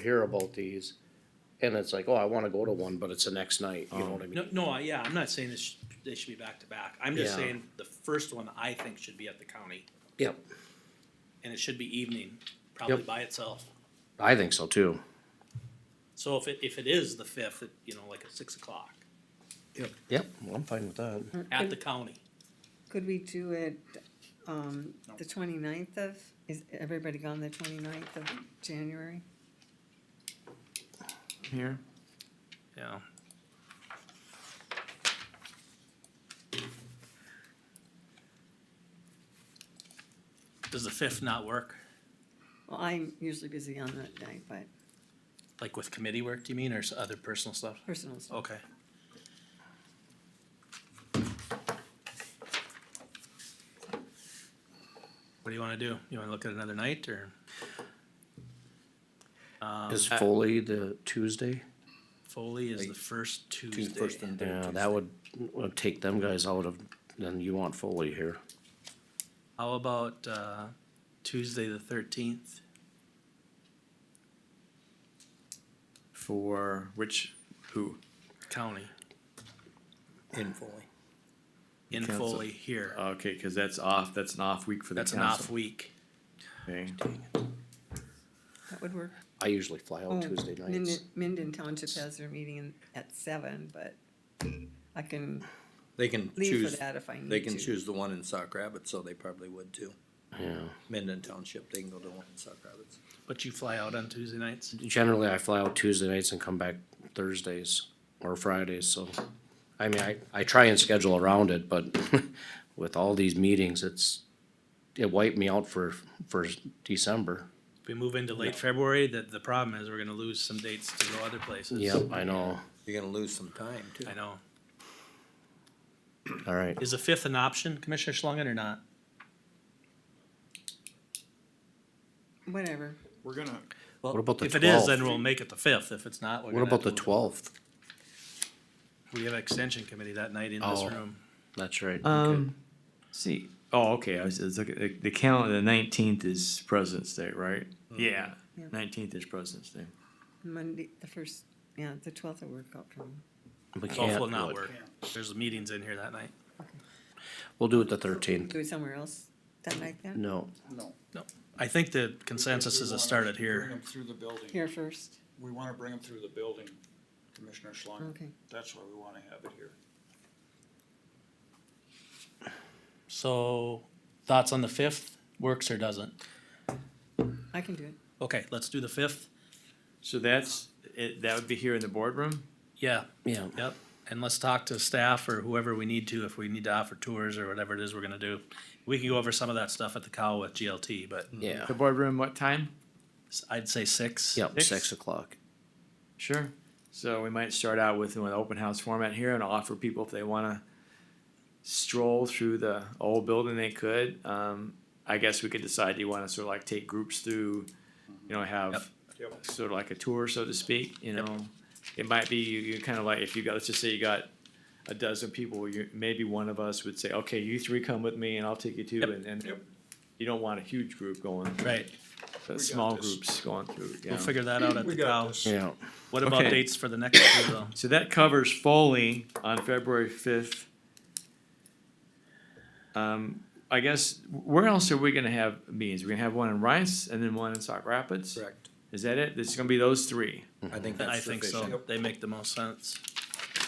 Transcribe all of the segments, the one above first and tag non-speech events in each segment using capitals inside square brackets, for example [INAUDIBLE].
hear about these, and it's like, oh, I wanna go to one, but it's the next night, you know what I Oh. No, mean? no, I- yeah, I'm not saying this, sh- they should be back to back. I'm just Yeah. saying the first one I think should be at the county Yep, and it should be evening, probably Yep. by itself. I think so too. So if it, if it is the fifth, it, you know, like at six o'clock Yep, well, I'm fine with that. Mm. at the county. Could we do it, um, the twenty-ninth of, is everybody gone the twenty-ninth of January? here. Yeah. Does the fifth not work? Well, I'm usually busy on that night, but Like with committee work, do you mean, or s- other personal stuff? personal stuff. Okay. What do you wanna do? You wanna look at another night or? Um, Is Foley the Tuesday? Foley is the first First Tuesday. and third Yeah, Tuesday. that would, would take them guys out of, then you want Foley here. How about, uh, Tuesday the thirteenth? For which, who? County, In Foley. in Council. Foley here. Okay, cause that's off, that's an off week for the That's an council. off week. Okay, Oh. That would work. I usually fly Oh, out Tuesday nights. Minden- Minden Township has their meeting in- at seven, but I can They can leave for choose, that if I need to. they can choose the one in Sock Rapids, so they probably would too. Yeah, Minden Township, they can go to one in Sock Rapids. But you fly out on Tuesday nights? generally I fly out Tuesday nights and come back Thursdays or Fridays, so. I mean, I, I try and schedule around it, but [LAUGHS] with all these meetings, it's, it wiped me out for, for December. If we move into late February, the, the problem is we're gonna lose some dates to go other places. Yep, I know, You're gonna lose some time too. I know. all right. Is the fifth an option, Commissioner Schlangen, or not? Whatever. We're gonna, What about the If it is, then twelfth? we'll make it the fifth. If it's not, we're What gonna about the have to- twelfth? We have extension committee that night in this Oh. room. That's right. um, see, oh, okay, I was, I was looking, the, the calendar, the nineteenth is President's Day, right? Mm-hmm. Yeah, Yeah. nineteenth is President's Day. Monday, the first, yeah, the twelfth will work out for me. We Twelve can't will do not it. work. There's meetings in here that night. We'll do it the thirteenth. Do it somewhere else that night then? No, no. I think the consensus is it started Bring here. them through the building. Here first, We wanna bring them through the building, Commissioner Schlangen. okay. That's why we wanna have it here. So, thoughts on the fifth? Works or doesn't? I can do it. Okay, let's do the fifth. So that's, it, that would be here in the boardroom? Yeah, yeah, yep. And let's talk to staff or whoever we need to, if we need to offer tours or whatever it is we're gonna do. We can go over some of that stuff at the cow with GLT, but yeah, The boardroom, what time? s- I'd say six. yep, Six? six o'clock. Sure. So we might start out with an open house format here and offer people if they want to stroll through the old building, they could. Um, I guess we could decide, do you want to sort of like take groups through, you know, Yep. have Yep. sort of like a tour, so to speak, you know? It might be, you, you kind of like, if you got, let's just say you got a dozen people, you, maybe one of us would say, okay, you three come with me and I'll take you too. Yep. And, and Yep. you don't want a huge group going, Right, but got small this. groups going through, yeah. we'll figure that out at We the got cow. this. Yeah, What about Okay. dates for the next two [COUGHS] though? So that covers Foley on February fifth. Um, I guess, where else are we gonna have meetings? We're gonna have one in Rice and then one in Sauk Rapids? Correct. Is that it? This is gonna be those three. I think I that's think sufficient. so. They make the most sense.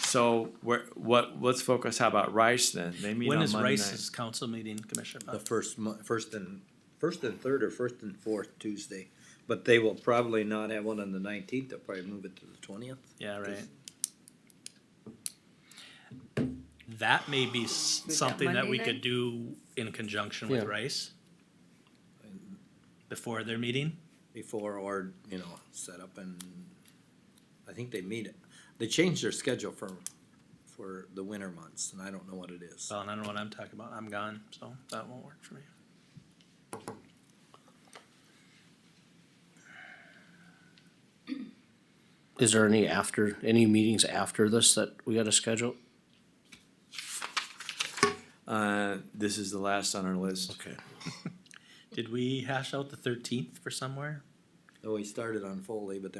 So where, what, let's focus, how about Rice then? They meet on When is Monday night. Rice's council meeting, Commissioner? The Pop? first mo- first and, first and third or first and fourth Tuesday. But they will probably not have one on the nineteenth, they'll probably move it to the twentieth. Yeah, right. That may be s- that something that Monday we night? could do in conjunction with Yeah. Rice. Before their meeting, Before or, you know, set up and, I think they meet it. They changed their schedule for, for the winter months and I don't know what it is. well, and I don't know what I'm talking about, I'm gone, so that won't work for me. is there any after, any meetings after this that we gotta schedule? Uh, this is the last on our list. Okay, Did we hash out the thirteenth for somewhere? Though we started on Foley, but then